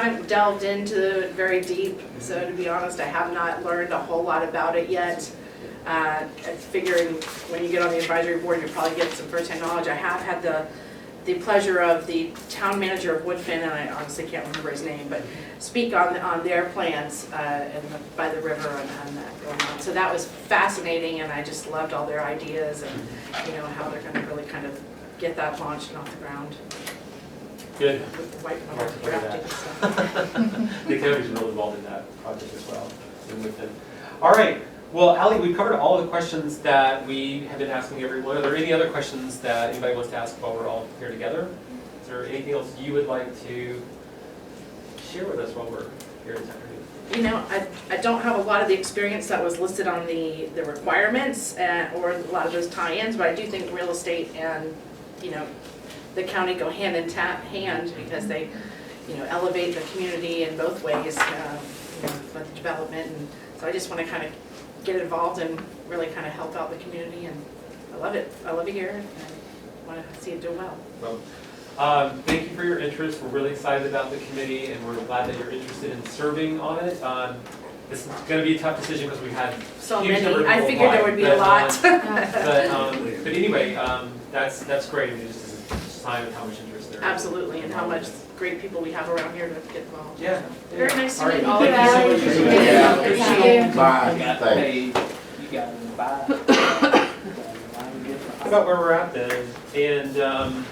haven't delved into it very deep, so to be honest, I have not learned a whole lot about it yet. Uh, I'm figuring when you get on the advisory board, you'll probably get some first-hand knowledge. I have had the, the pleasure of the town manager of Woodfin, and I honestly can't remember his name, but speak on, on their plans uh, and the- by the river and and that going on. So that was fascinating, and I just loved all their ideas and, you know, how they're gonna really kind of get that launched and off the ground Good. with the white Mark, water look at drafting stuff. The county's real involved in that project as well. and with it. All right, well, Ally, we've covered all the questions that we have been asking everyone. Are there any other questions that anybody wants to ask while we're all here together? Is there anything else you would like to share with us while we're here this afternoon? you know, I, I don't have a lot of the experience that was listed on the, the requirements uh, or a lot of those tie-ins, but I do think real estate and, you know, the county go hand in ta- hand because they, you know, elevate the community in both ways, um, you know, with development. And so I just want to kind of get involved and really kind of help out the community and I love it. I love it here and I want to see it do well. Well, um, Thank you for your interest. We're really excited about the committee and we're glad that you're interested in serving on it. Um, This is going to be a tough decision because we had So Huge number many, of I people figured there would be a applied, lot. but, But, um, but anyway, um, that's, that's great, it's just a sign of how much interest there is. Absolutely, and how much great people we have around here to get involved. Yeah. Very nice to All right, meet all thank of you so you. much for doing that. Yeah, Thank appreciate you. it. Bye, You got thanks. paid, you got invited. You got invited. How about where we're at then? And, um,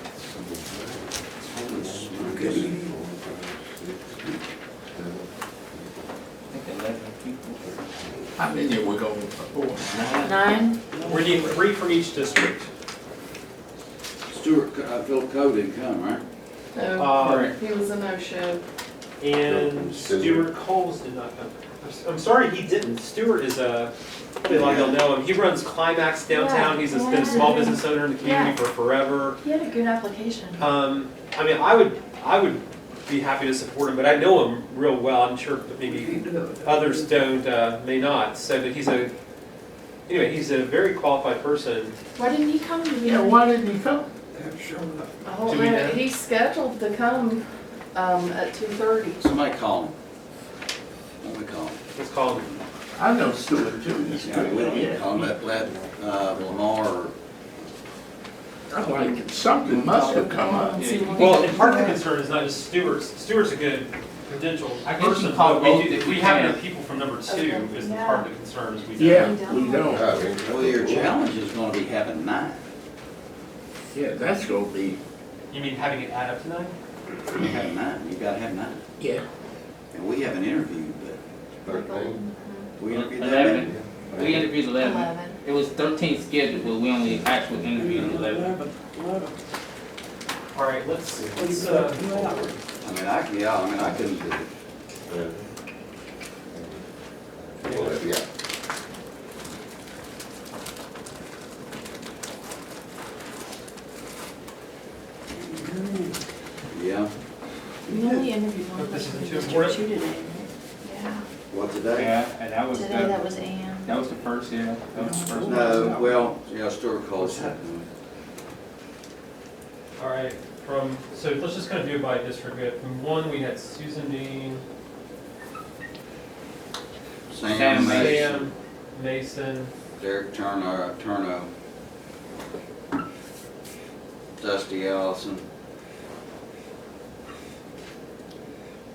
I think eleven people. How many we gonna afford? Nine? we need three from each district. Stuart, Co- uh, Phil Cody didn't come, right? Uh, He was a no-show. And Stuart Coles did not come. I'm s- I'm sorry, he didn't. Stuart is a, probably a lot of you will know him. He runs Climax downtown, he's a- been a small business owner in the community for forever. He had a good application. Um, I mean, I would, I would be happy to support him, but I know him real well, I'm sure that maybe others don't, uh, may not, so, but he's a, anyway, he's a very qualified person. Why didn't he come to the Yeah, meeting? why didn't he come? I don't Do we know? know. He's scheduled to come, um, at two thirty. Somebody call him. Somebody call him. Let's call him. I know Stuart too. He's Yeah, we don't need to good. call him, let, let, uh, Lamar or I'm like, something must have come up. Well, and part of the concern is not just Stewart's, Stewart's a good credential I guess you person, call but we both do, if we you have can. enough people from number two Okay, is the yeah. part of the concern, is we do. Yeah, we don't. Well, your challenge is gonna be having nine. Yeah, that's gonna be, You mean having it add up to nine? You have nine, you gotta have nine. yeah. And we haven't interviewed, but Thirteen. we interviewed that many. Eleven, we interviewed eleven. Eleven. It was thirteen scheduled, but we only actually interviewed eleven. All right, let's, let's, uh, I mean, I, yeah, I mean, I couldn't do it. Yeah. Yeah, You only interviewed one But this person, is did too you important. She did it. Yeah. what today? Yeah, and that was, Today that the- was Ann. that was the first, yeah, that was the first. No, well, yeah, Stuart calls. All right, from, so let's just kind of do it by district. We had- From one, we had Susan Dean, Sam Sam Mason, Sam, Mason, Derek Turner, Turno. Dusty Allison.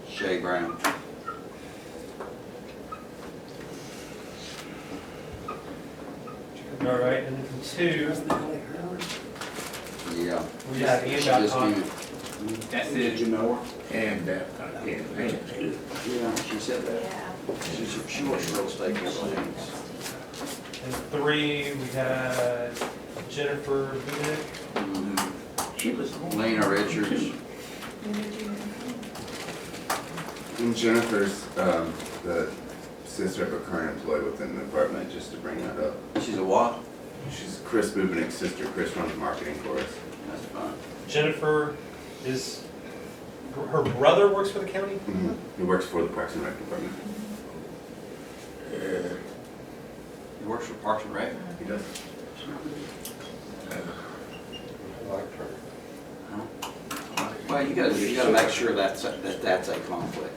Shay Brown. all right, and then from two, Yeah. we had Ann Just Babcock. me. That's it. And uh, that, I can't imagine. Yeah, she said that. Yeah. She, she works real estate consultants. And three, we had Jennifer Bennett. Mm-hmm. She was. the one. Lena Richards. When did you interview? And Jennifer's um, the sister of a current employee within the department, just to bring that up. She's a what? She's Chris Bubenek's sister. Chris runs marketing for us. That's fine. Jennifer is, her brother works for the county? He works for the Parks and Rec department. uh, He works for Parks and Rec. He does. Huh? Well, you gotta, you gotta make sure that's, that that's a conflict.